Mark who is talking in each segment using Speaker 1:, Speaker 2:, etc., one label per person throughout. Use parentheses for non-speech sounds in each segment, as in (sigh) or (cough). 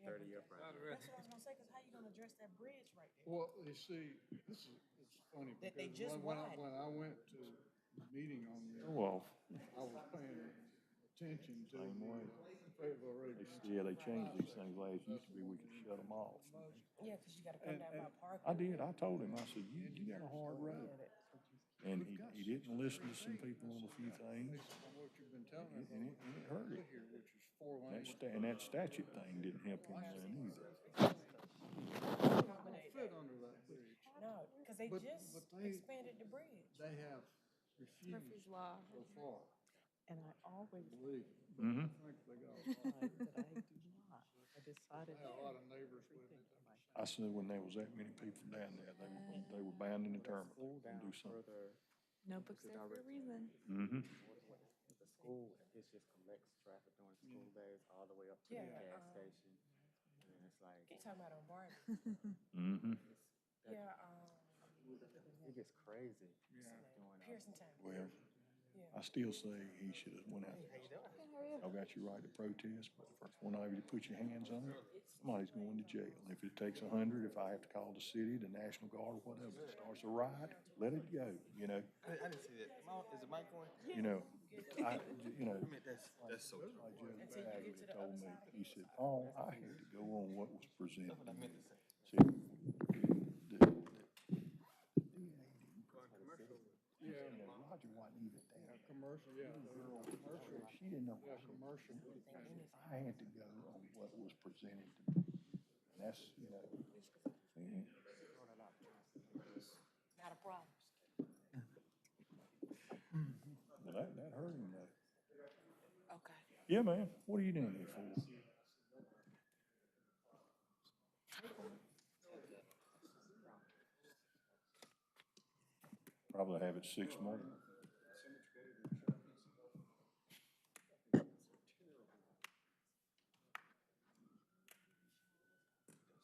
Speaker 1: Not
Speaker 2: Brian.
Speaker 1: really.
Speaker 3: That's what I was gonna say, cause how you gonna address that bridge right there?
Speaker 4: Well, you see, this is, it's funny
Speaker 3: That they
Speaker 4: because
Speaker 3: just
Speaker 4: when, when
Speaker 3: widened.
Speaker 4: I, when I went to the meeting on this,
Speaker 5: Well,
Speaker 4: I was paying attention to the Fayetteville Road.
Speaker 5: they, yeah, they changed these things last, used to be we could shut them off.
Speaker 3: Yeah, cause you gotta come down by
Speaker 5: I
Speaker 3: parking.
Speaker 5: did, I told him, I said, you, you got a hard road. And he, he didn't listen to some people on a few things,
Speaker 4: Based on what you've been telling us,
Speaker 5: and it, and it hurt
Speaker 4: over
Speaker 5: it.
Speaker 4: here, which is four
Speaker 5: That
Speaker 4: lanes.
Speaker 5: sta- and that statute thing didn't help him then either.
Speaker 3: Accommodate
Speaker 4: Foot
Speaker 3: that.
Speaker 4: under that bridge.
Speaker 3: No, cause they
Speaker 4: But-
Speaker 3: just
Speaker 4: but they-
Speaker 3: expanded the bridge.
Speaker 4: They have refused
Speaker 6: Murphy's Law.
Speaker 4: so far,
Speaker 7: And I
Speaker 4: (laughs)
Speaker 7: always
Speaker 4: believe. me. I
Speaker 5: Mm-hmm.
Speaker 4: think they got, a
Speaker 7: lied
Speaker 4: lot-
Speaker 7: that I do not. I decided.
Speaker 4: they had a lot of neighbors with it.
Speaker 5: I said, when there was that many people down there, they were, they were bound and determined
Speaker 2: Pull
Speaker 5: to
Speaker 2: down
Speaker 5: do something.
Speaker 2: further,
Speaker 6: Notebooks there for a reason.
Speaker 5: Mm-hmm.
Speaker 2: the school, it just collects traffic during school days all the way up to the
Speaker 3: Yeah,
Speaker 2: gas
Speaker 3: um,
Speaker 2: station. And it's like,
Speaker 3: Keep talking about on Barton.
Speaker 5: Mm-hmm.
Speaker 3: Yeah, um,
Speaker 2: it gets crazy. during all-
Speaker 3: Pearson Town,
Speaker 5: Well,
Speaker 3: yeah.
Speaker 5: I still say he should have went out there.
Speaker 2: How you doing?
Speaker 5: I got your right to protest, but the first one of you to put your hands on it, somebody's going to jail. If it takes a hundred, if I have to call the city, the National Guard, whatever, it starts a riot, let it go, you know,
Speaker 8: I, I didn't see that. Am I- Is it mic on?
Speaker 5: you know. I, you know,
Speaker 8: I mean, that's, that's so true.
Speaker 5: my judge Bagley told me, he said, oh, I had to go on what was presented to me. See, the- the-
Speaker 4: Yeah,
Speaker 5: you know, Roger wasn't even there.
Speaker 4: a commercial, yeah, they were on commercial,
Speaker 5: She didn't know.
Speaker 4: yeah, commercial.
Speaker 5: I had to go on what was presented to me. And that's, you know, and-
Speaker 3: Not a problem.
Speaker 5: well, that, that hurt him though.
Speaker 6: Okay.
Speaker 5: Yeah, man, what are you doing here for? Probably have it six more.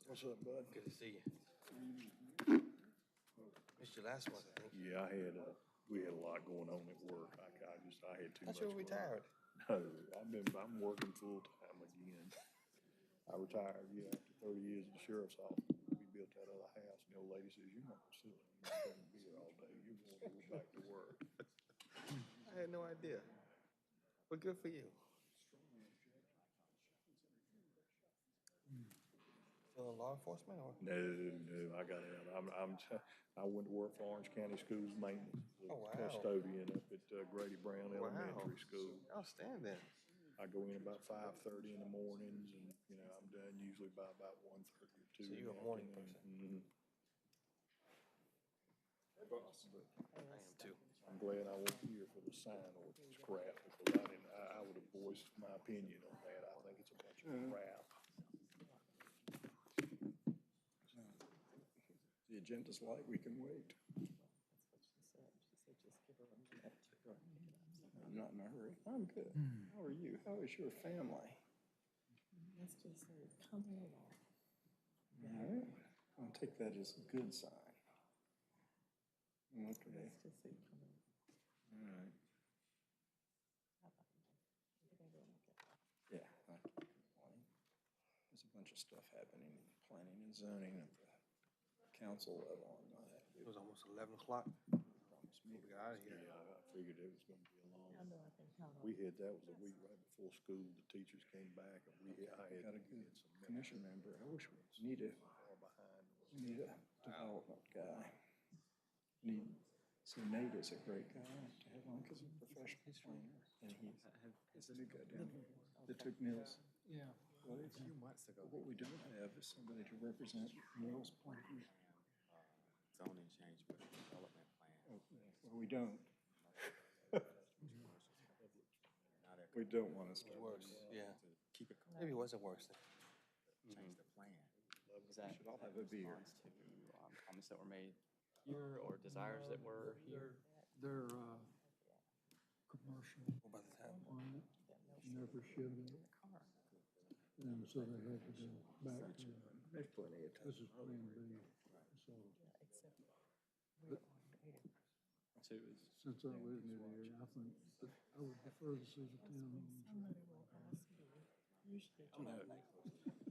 Speaker 5: What's up, bud?
Speaker 8: Good to see you. Missed your last one, I think.
Speaker 5: Yeah, I had, uh, we had a lot going on at work. I, I just, I had too much.
Speaker 8: Thought you were
Speaker 5: going on.
Speaker 8: retired.
Speaker 5: No, I've been, I'm working full-time again. I retired, yeah, after thirty years in the sheriff's office. We built that other house, and the old lady says, you're not silly. You're not gonna be here all day. You're going to go back to work.
Speaker 8: I had no idea. But good for you. Still in law enforcement or?
Speaker 5: No, no, I got out. I'm, I'm, t- I went to work for Orange County Schools Maintenance.
Speaker 8: Oh, wow.
Speaker 5: Custodian up at uh, Grady Brown
Speaker 8: Wow.
Speaker 5: Elementary School.
Speaker 8: Outstanding.
Speaker 5: I go in about five thirty in the mornings and, you know, I'm done usually by about one thirty or two.
Speaker 8: So
Speaker 5: in
Speaker 8: you're
Speaker 5: the
Speaker 8: a morning
Speaker 5: afternoon. Mm-hmm.
Speaker 8: I am too.
Speaker 5: Mhm. I'm glad I wasn't here for the sign ordinance crap because I didn't, I, I would have voiced my opinion on that. I think it's a bunch of crap. The agenda's light, we can wait.
Speaker 7: That's what she said. She said, just give her a minute.
Speaker 5: I'm not in a hurry. I'm good. How are you? How is your family?
Speaker 7: That's just her coming along.
Speaker 5: I'll take that as a good sign. Okay.
Speaker 7: That's just her coming.
Speaker 5: All
Speaker 7: along.
Speaker 5: right.
Speaker 7: Everything going okay.
Speaker 5: Yeah. I can't complain. There's a bunch of stuff happening in planning and zoning at the council level and all that.
Speaker 8: It was almost eleven o'clock.
Speaker 5: Promised
Speaker 8: We
Speaker 5: me.
Speaker 8: got out of
Speaker 5: Yeah,
Speaker 8: here.
Speaker 5: I figured it was gonna be a long.
Speaker 7: I know I can count on.
Speaker 5: We had, that was a week right before school, the teachers came back and we, I had. Got a good commission member. I wish we need a. We need a development guy. Need, see Nate is a great guy to have on because he's a professional planner and he's, he's a new guy down here that took Neil's.
Speaker 4: Yeah.
Speaker 5: What is,
Speaker 2: Few months ago,
Speaker 5: what we don't have is somebody to represent Neil's plan.
Speaker 2: uh, zoning change with the development
Speaker 8: (laughs)
Speaker 2: plan.
Speaker 5: Well, we don't.
Speaker 2: Now they're
Speaker 5: We don't want to.
Speaker 2: It works, yeah. Keep it,
Speaker 8: Maybe it wasn't worse.
Speaker 2: change the plan.
Speaker 9: Was that
Speaker 5: should all
Speaker 9: that
Speaker 5: have a beer.
Speaker 9: response to um, comments that were made here or desires that were here?
Speaker 4: They're, uh, commercial
Speaker 8: By the time,
Speaker 4: on it, never should have. And so they had to go back to,
Speaker 5: There's plenty of time.
Speaker 4: this is Plan B. So
Speaker 7: Except we're on data.
Speaker 9: So it was
Speaker 4: since I live near the area, I think that I would prefer to see the town.
Speaker 7: Somebody will ask me, usually.